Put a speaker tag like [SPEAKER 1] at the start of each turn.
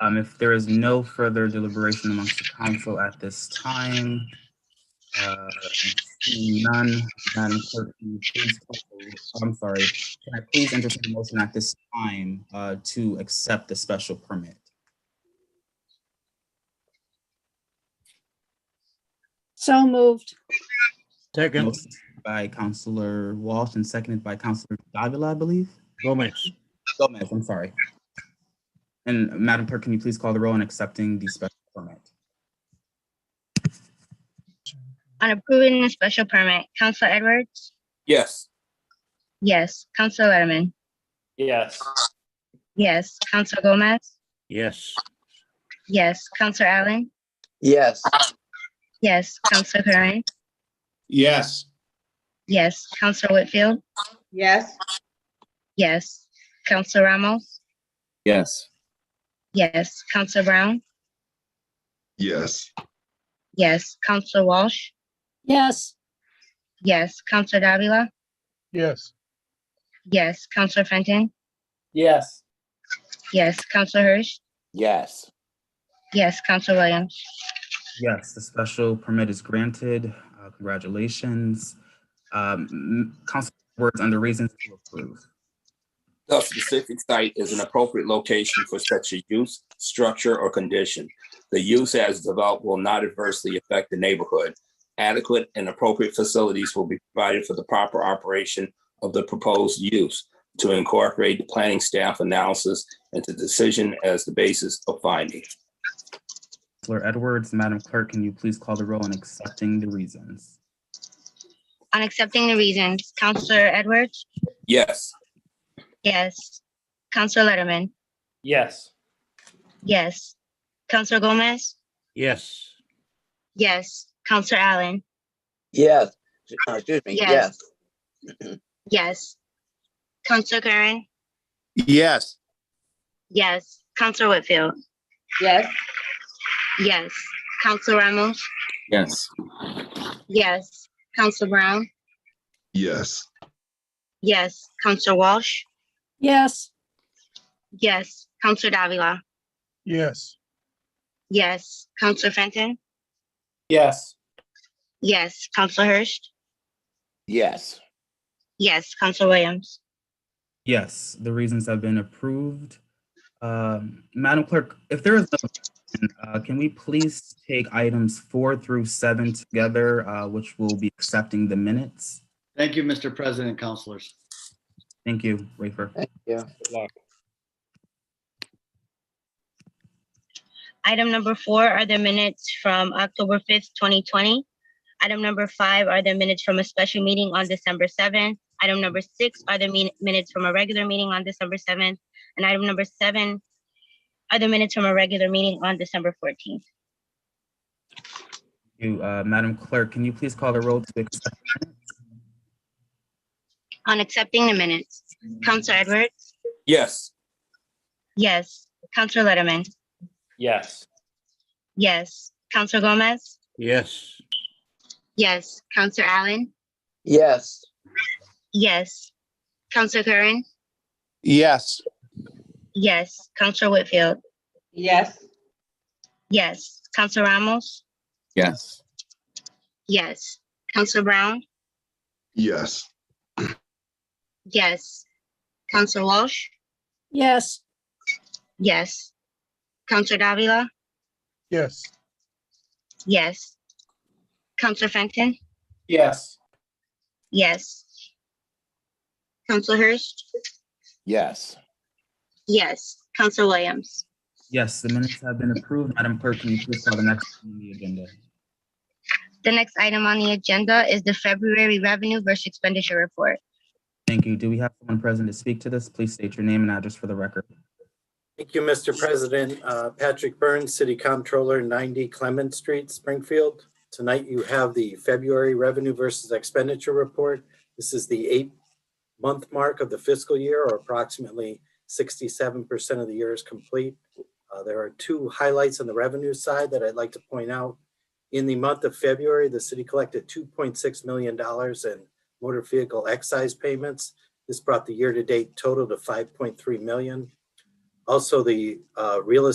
[SPEAKER 1] Um, if there is no further deliberation amongst the council at this time, uh, seeing none, Madam Clerk, can you please, call the roll? I'm sorry, can I please entertain a motion at this time, uh, to accept the special permit?
[SPEAKER 2] So moved.
[SPEAKER 3] Second,
[SPEAKER 1] Motion By Counselor Walsh and seconded by Counselor Davila, I believe.
[SPEAKER 3] Gomez.
[SPEAKER 1] Gomez, I'm sorry. And Madam Clerk, can you please call the roll on accepting the special permit?
[SPEAKER 4] On approving the special permit, Counselor Edwards?
[SPEAKER 5] Yes.
[SPEAKER 4] Yes. Counselor Letterman?
[SPEAKER 6] Yes.
[SPEAKER 4] Yes. Counselor Gomez?
[SPEAKER 3] Yes,
[SPEAKER 4] Yes. Counselor Allen?
[SPEAKER 5] Yes.
[SPEAKER 4] Yes. Counselor Curran?
[SPEAKER 5] Yes.
[SPEAKER 4] Yes. Counselor Whitfield?
[SPEAKER 7] yes,
[SPEAKER 4] Yes. Counselor Ramos?
[SPEAKER 5] Yes.
[SPEAKER 4] Yes. Counselor Brown?
[SPEAKER 8] yes,
[SPEAKER 4] Yes. Counselor Walsh?
[SPEAKER 2] Yes,
[SPEAKER 4] Yes. Counselor Davila?
[SPEAKER 9] yes,
[SPEAKER 4] Yes. Counselor Fenton?
[SPEAKER 6] Yes.
[SPEAKER 4] Yes. Counselor Hirsch?
[SPEAKER 5] Yes.
[SPEAKER 4] Yes. Counselor Williams?
[SPEAKER 1] Yes, the special permit is granted. Uh, Congratulations. Um, Counselor Edwards, under reasons to approve.
[SPEAKER 5] The specific site is an appropriate location for such a use, structure, or condition. The use as developed will not adversely affect the neighborhood. Adequate and appropriate facilities will be provided for the proper operation of the proposed use to incorporate the planning staff analysis into decision as the basis of finding.
[SPEAKER 1] Counselor Edwards, Madam Clerk, can you please call the roll on accepting the reasons?
[SPEAKER 4] On accepting the reasons, Counselor Edwards?
[SPEAKER 5] Yes.
[SPEAKER 4] Yes. Counselor Letterman?
[SPEAKER 6] Yes.
[SPEAKER 4] Yes. Counselor Gomez?
[SPEAKER 3] yes,
[SPEAKER 4] Yes. Counselor Allen?
[SPEAKER 5] Yes. Uh, Excuse me,
[SPEAKER 4] Yes. yes. Yes. Counselor Curran?
[SPEAKER 5] Yes.
[SPEAKER 4] Yes. Counselor Whitfield?
[SPEAKER 7] yes,
[SPEAKER 4] Yes. Counselor Ramos?
[SPEAKER 5] Yes.
[SPEAKER 4] Yes. Counselor Brown?
[SPEAKER 8] yes,
[SPEAKER 4] Yes. Counselor Walsh?
[SPEAKER 2] yes,
[SPEAKER 4] Yes. Counselor Davila?
[SPEAKER 9] yes,
[SPEAKER 4] Yes. Counselor Fenton?
[SPEAKER 6] Yes.
[SPEAKER 4] Yes. Counselor Hurst?
[SPEAKER 5] Yes.
[SPEAKER 4] Yes. Counselor Williams?
[SPEAKER 1] Yes, the reasons have been approved. Um, Madam Clerk, if there is, no- uh, can we please take items four through seven together, uh, which will be accepting the minutes?
[SPEAKER 10] Thank you, Mr. President, counselors.
[SPEAKER 1] Thank you, Wafer.
[SPEAKER 4] Item number four are the minutes from October fifth, twenty twenty. Item number five are the minutes from a special meeting on December seventh. Item number six are the min- minutes from a regular meeting on December seventh. And item number seven are the minutes from a regular meeting on December fourteenth.
[SPEAKER 1] You, uh, Madam Clerk, can you please call the roll to accept?
[SPEAKER 4] On accepting the minutes, Counselor Edwards?
[SPEAKER 5] Yes.
[SPEAKER 4] Yes. Counselor Letterman?
[SPEAKER 6] Yes.
[SPEAKER 4] Yes. Counselor Gomez?
[SPEAKER 3] yes,
[SPEAKER 4] Yes. Counselor Allen?
[SPEAKER 5] Yes.
[SPEAKER 4] Yes. Counselor Curran?
[SPEAKER 5] Yes.
[SPEAKER 4] Yes. Counselor Whitfield?
[SPEAKER 7] yes,
[SPEAKER 4] Yes. Counselor Ramos?
[SPEAKER 5] Yes.
[SPEAKER 4] Yes. Counselor Brown?
[SPEAKER 8] yes,
[SPEAKER 4] Yes. Counselor Walsh?
[SPEAKER 2] yes,
[SPEAKER 4] Yes. Counselor Davila?
[SPEAKER 9] yes,
[SPEAKER 4] Yes. Counselor Fenton?
[SPEAKER 6] Yes.
[SPEAKER 4] Yes. Counselor Hurst?
[SPEAKER 5] Yes.
[SPEAKER 4] Yes. Counselor Williams?
[SPEAKER 1] Yes, the minutes have been approved. Madam Clerk, can you please call the next on the agenda?
[SPEAKER 4] The next item on the agenda is the February Revenue versus Expenditure Report.
[SPEAKER 1] Thank you. Do we have someone present to speak to this? Please state your name and address for the record.
[SPEAKER 11] Thank you, Mr. President. Uh, Patrick Burns, City Comptroller, 90 Clement Street, Springfield. Tonight you have the February revenue versus expenditure report. This is the eight-month mark of the fiscal year, or approximately 67% of the year is complete. Uh, There are two highlights on the revenue side that I'd like to point out. In the month of February, the city collected $2.6 million in motor vehicle excise payments. This brought the year-to-date total to 5.3 million. Also, the uh, real